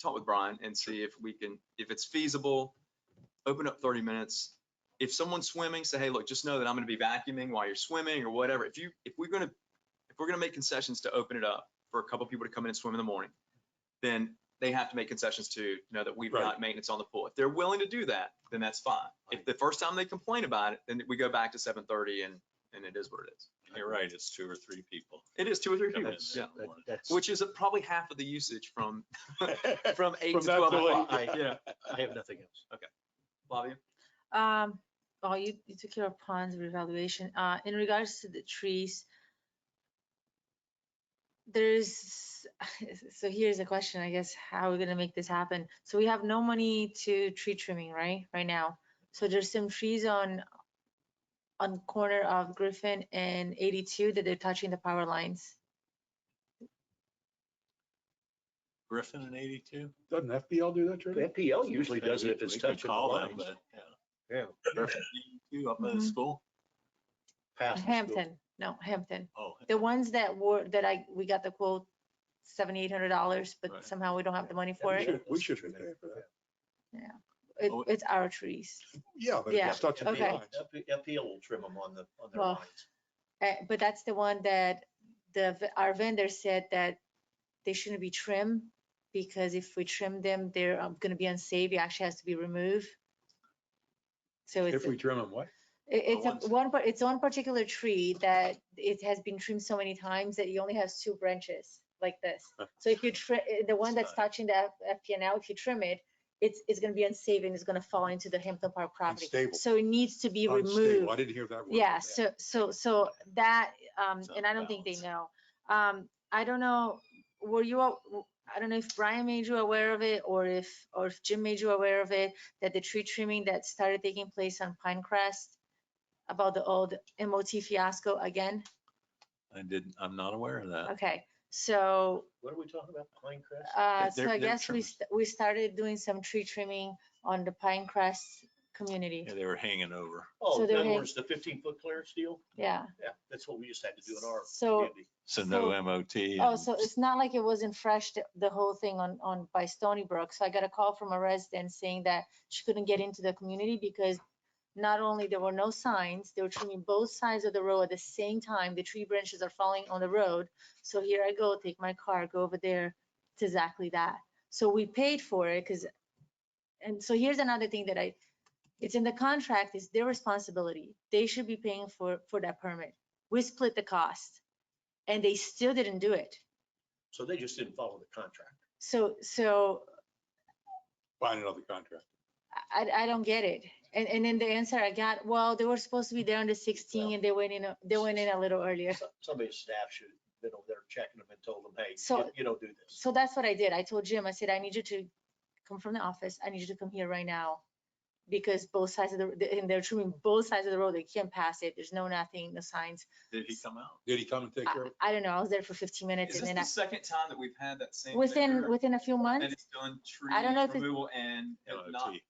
talk with Brian and see if we can, if it's feasible, open up thirty minutes. If someone's swimming, say, hey, look, just know that I'm gonna be vacuuming while you're swimming or whatever. If you, if we're gonna, if we're gonna make concessions to open it up for a couple people to come in and swim in the morning, then they have to make concessions to you know that we've Right. got maintenance on the pool. If they're willing to do that, then that's fine. If Right. the first time they complain about it, then we go back to seven thirty and, and it is what it is. You're right, it's two or three people. It is two or three Come in people, there. yeah. That- One. That's, Which is a- probably half of the usage from, I from eight to From that twelve to eight, o'clock. yeah. Yeah. have nothing else. Flavia? Um, oh, you, you took care of ponds revaluation. Uh, in regards to the trees, there's, so here's a question, I guess, how are we gonna make this happen? So we have no money to tree trimming, right, right now? So there's some trees on, on corner of Griffin and eighty-two that they're touching the power lines. Griffin and eighty-two? Doesn't FPL do that, Jerry? FPL usually does it if it's We could touching the Call them, lines. but, yeah. Yeah, Griffin, 82 up at the Mhm. school? past the school. Hampton, no, Hampton. Oh, The ones that were, that I, we got the quote, seventy-eight hundred dollars, Right. but somehow we don't have the money for We it. should- We should be paying for that. It, Oh, it's our trees. Yeah, but if Yeah, it's touching the okay. lines. FPL will trim them on the, on their Well, lines. Uh, but that's the one that the, v- our vendor said that they shouldn't be trimmed because if we trim them, they're um, gonna be unsafe. It actually has to be removed. So it's, If a- we trim them, what? it- it's ones- a- one, par- it's one particular tree that it has been trimmed so many times that you only have two branches like this. So if you trim, the one that's touching the FPNL, if you trim it, it's, it's gonna be unsafe and it's gonna fall into the Hampton Park property. Unstable. So it needs to be removed. Unstable. I didn't hear that word. Yeah, so, so, so that, um, It's out and of I don't think they balance. know. Um, I don't know, were you, aw- w- I don't know if Brian made you aware of it or if, or if Jim made you aware of it, that the tree trimming that started taking place on Pinecrest about the old MOT fiasco again? I didn't, I'm not aware of that. Okay, so, What are we talking about, Pinecrest? they're- uh, so I they're guess we, trimming. st- we started doing some tree trimming on the Pinecrest community. Yeah, they were hanging over. Oh, so in they're other hang- words, the fifteen foot clearance deal? Yeah. Yeah, that's what we used to have to do in our So- community. So no So- MOT. Oh, and- so it's not like it wasn't fresh, the, the whole thing on, on by Stony Brook. So I got a call from a resident saying that she couldn't get into the community because not only there were no signs, they were trimming both sides of the road at the same time. The tree branches are falling on the road. So here I go, take my car, go over there. It's exactly that. So we paid for it because, and so here's another thing that I, it's in the contract, it's their responsibility. They should be paying for, for that permit. We split the cost and they still didn't do it. So they just didn't follow the contract. So, so Find another contract. I, I don't get it. And, and then the answer I got, well, they were supposed to be there on the sixteen and they went in, a- they went in a little earlier. Some- Somebody's staff should have been over there checking them and told them, hey, So- you- you don't do this. So that's what I did. I told Jim, I said, I need you to come from the office. I need you to come here right now. Because both sides of the, and they're trimming both sides of the road. They can't pass it. There's no nothing, no signs. Did he come out? Did he come and take I, care of it? I don't know. I was there for fifteen minutes Is and this then the I, second time that we've had that same? within, vendor within a few And months, it's done tree I don't know if it- removal and have not, MOT.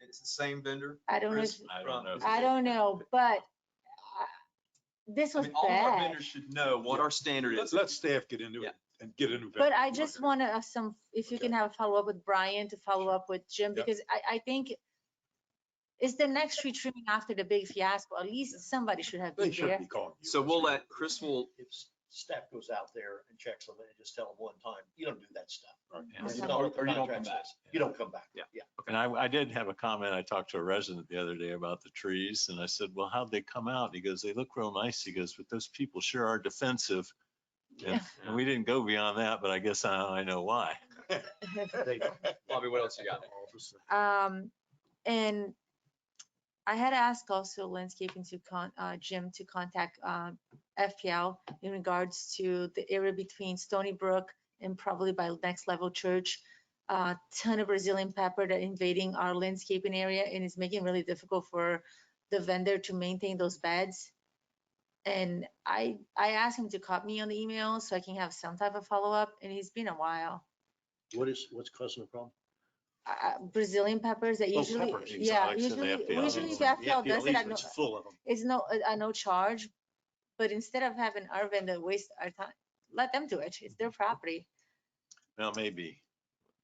it's the same vendor. I don't know, if- Chris, I don't know. if- I don't know, but I- this I was mean, all of our bad. vendors should know what our standard Let- is. Let staff get into Yeah. it and get into. But I just want to have some, if you Okay. can have a follow-up with Brian to follow up with Jim, Yeah. because I, I think it's the next tree trimming after the big fiasco. At least somebody should have They been shouldn't there. be calling you. So we'll let, Chris will, If s- staff goes out there and checks them and just tell them one time, you don't do that stuff. Yeah. Or You something. follow what the Or you don't come contract back. says. You don't come back. Yeah. Yeah. And I, I did have a comment. I talked to a resident the other day about the trees and I said, well, how'd they come out? He goes, they look real nice. He goes, but those people sure are defensive. And and we didn't go beyond that, but I guess I, I know why. They don't. Bobby, what else you got? Um, and I had asked also landscaping to con, uh, Jim to contact, uh, FPL in regards to the area between Stony Brook and probably by Next Level Church. A ton of Brazilian pepper that invading our landscaping area and is making it really difficult for the vendor to maintain those beds. And I, I asked him to copy me on the email so I can have some type of follow-up and it's been a while. What is, what's causing the problem? uh, Brazilian peppers that Oh, usually, peppers, exotics yeah, and usually, FPL. usually Yeah, FPL does it at no, It's full of them. it's no, a no charge. But instead of having our vendor waste our time, let them do it. It's their property. Now, maybe